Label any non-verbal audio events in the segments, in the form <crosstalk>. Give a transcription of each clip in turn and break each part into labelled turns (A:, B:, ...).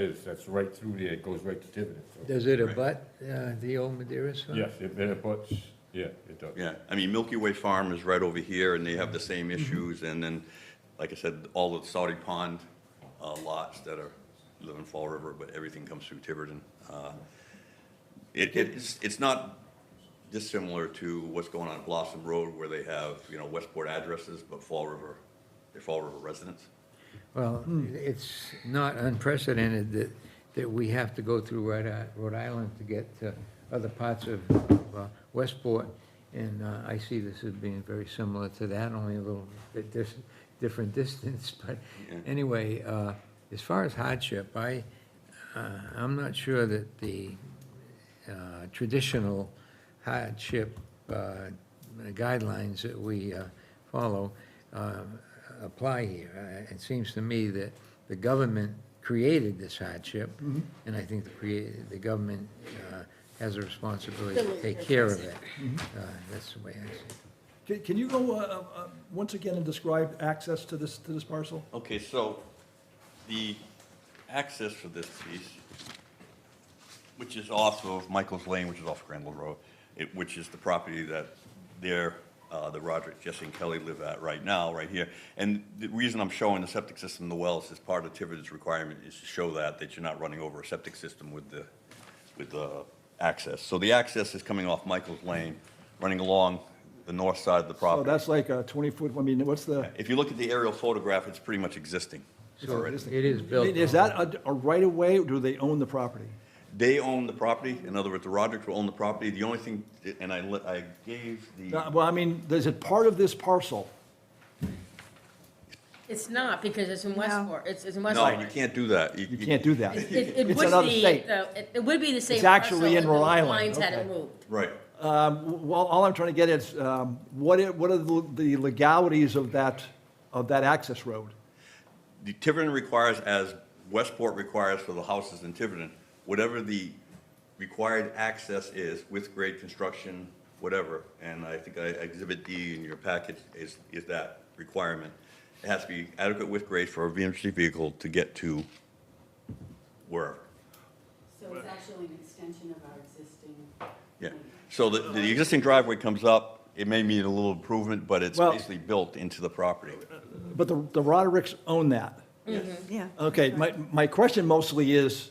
A: is, that's right through there, it goes right to Tiverton. so-
B: Does it abut uh, the old Madeira's farm?
A: Yes, it it abuts, yeah, it does.
C: Yeah, I mean, Milky Way Farm is right over here, and they have the same issues, and then, like I said, all the Saudi Pond uh, lots that are, live in Fall River, but everything comes through Tiverton. Uh, It, it's, it's not dissimilar to what's going on at Blossom Road, where they have, you know, Westport addresses, but Fall River, they're Fall River residents.
B: Well, it's not unprecedented that, that we have to go through Rhode I- Rhode Island to get to other parts of uh, Westport. And uh, I see this as being very similar to that, only a little bit dis- different <laughs> distance. But anyway, uh, as far as hardship, I, uh, I'm not sure that the uh, traditional hardship uh, guidelines that we uh, follow uh, apply here. Uh, It seems to me that the government created this hardship,
D: Mm-hmm.
B: and I think the crea- the government uh, has a responsibility to take care of it.
D: Mm-hmm.
B: Uh, That's the way I see it.
D: Can, can you go, uh, uh, once again and describe access to this, to this parcel?
C: Okay, so the access for this piece, which is off of Michael's Lane, which is off Crandall Road, it, which is the property that they're, uh, the Roderick, Jesse and Kelly live at right now, right here. And the reason I'm showing the septic system, the wells, is part of Tiverton's requirement is to show that, that you're not running over a septic system with the, with the access. So the access is coming off Michael's Lane, running along the north side of the
D: So
C: property.
D: that's like a 20-foot, I mean, what's the,
C: If you look at the aerial photograph, it's pretty much existing.
B: So
D: it is-
B: it is
D: I
B: built.
D: mean, is that a, a right-of-way, or do they own the property?
C: They own the property, in other words, the Rodericks will own the property, the only thing, and I, li- I gave
D: Uh,
C: the,
D: Well, I mean, is it part of this parcel?
E: It's not, because it's in Westport, it's, it's in Westport.
C: no, you can't do that.
D: You can't do that.
C: <laughs>
E: It, it- it
D: It's
E: would
D: another
E: be,
D: state.
E: though, it, it would be the same
D: It's
E: parcel
D: actually in
E: if the
D: Rhode Island,
E: lines hadn't
D: okay.
E: moved.
C: Right,
D: Um, Well, all I'm trying to get is, um, what i- what are the the legalities of that, of that access road?
C: the Tiverton requires, as Westport requires for the houses in Tiverton, whatever the required access is with grade construction, whatever, and I think I exhibit D in your package is, is that requirement. It has to be adequate with grade for a VMC vehicle to get to wherever.
F: So it's actually an extension of our existing.
C: Yeah,
F: plan.
C: so the, the existing driveway comes up, it may need a little improvement, but it's
D: Well-
C: basically built into the property.
D: But the the Rodericks own that.
G: Yeah.
D: Okay, my my question mostly is,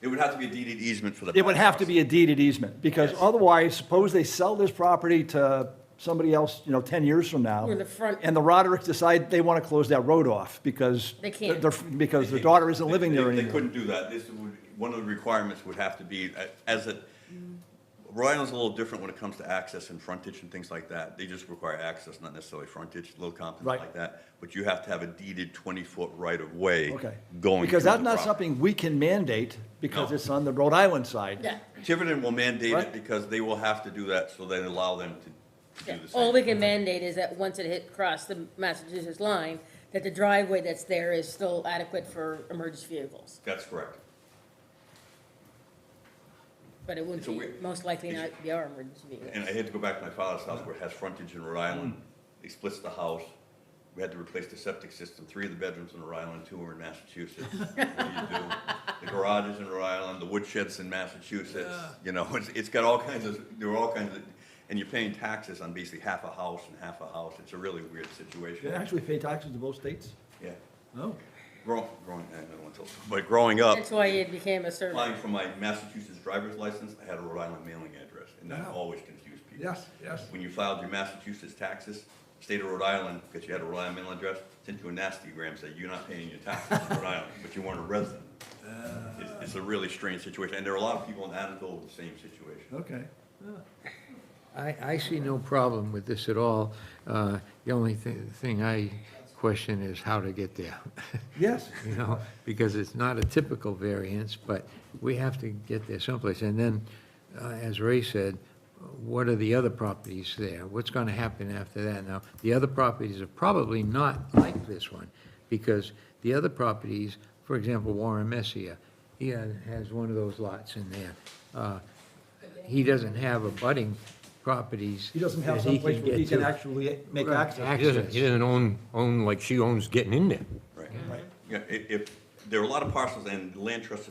C: It would have to be a deeded easement for the.
D: It would have to be a deeded easement, because otherwise, suppose they sell this property to somebody else, you know, 10 years from now.
E: Or the front.
D: And the Rodericks decide they want to close that road off because.
E: They can't.
D: their- Because their daughter isn't living
C: They-
D: there
C: they- They
D: anymore.
C: couldn't do that, this would, one of the requirements would have to be, uh, as a, Rhode Island's a little different when it comes to access and frontage and things like that. They just require access, not necessarily frontage, little compliments
D: Right.
C: like that, but you have to have a deeded twenty-foot right-of-way.
D: Okay.
C: Going.
D: Because
C: through
D: that's
C: the
D: not
C: property.
D: something we can mandate, because
C: No.
D: it's on the Rhode Island side.
E: Yeah,
C: Tiverton will mandate it
D: Right.
C: because they will have to do that, so they allow them to- to
E: yeah.
C: do the same.
E: all we can mandate is that once it hit, across the Massachusetts line, that the driveway that's there is still adequate for emergency vehicles,
C: That's correct.
E: but it wouldn't
C: It's a
E: be,
C: weird-
E: most likely not be our emergency
C: And
E: vehicles.
C: I had to go back to my father's house where it has frontage in Rhode Island. He splits the house. We had to replace the septic system. Three of the bedrooms in Rhode Island, two are in Massachusetts. What do you do? The garage is in Rhode Island, the woodshed's in Massachusetts. You know, it's, it's got all kinds of, there are all kinds of, and you're paying taxes on basically half a house and half a house. It's a really weird
D: You
C: situation.
D: actually pay taxes to both states?
C: Yeah.
D: No.
C: Growing, growing, I don't want to tell, but growing up,
E: That's why it became a survey.
C: applying for my Massachusetts driver's license, I had a Rhode Island mailing address, and that
D: Wow.
C: always confused people.
D: Yes, yes.
C: When you filed your Massachusetts taxes, state of Rhode Island, because you had a Rhode Island mailing address, sent you a nastygram saying you're not paying your taxes in Rhode Island, but you weren't a resident.
D: Uh.
C: It's, it's a really strange situation, and there are a lot of people in Adamville with the same situation.
D: Okay.
B: I, I see no problem with this at all. Uh, The only thi- thing I question is how to get there. <laughs>
D: Yes.
B: you know, because it's not a typical variance, but we have to get there someplace. And then, uh, as Ray said, what are the other properties there? What's going to happen after that? Now, the other properties are probably not like this one, because the other properties, for example, Warren Messier, he ha- has one of those lots in there. Uh, He doesn't have abutting properties.
D: He doesn't have
B: that he
D: someplace
B: can
D: where he
B: get
D: can
B: to.
D: actually make
B: Right,
D: access.
H: He doesn't, he doesn't own, own like she owns getting in there.
C: Right. Yeah, i- if, there are a lot of parcels, and land trust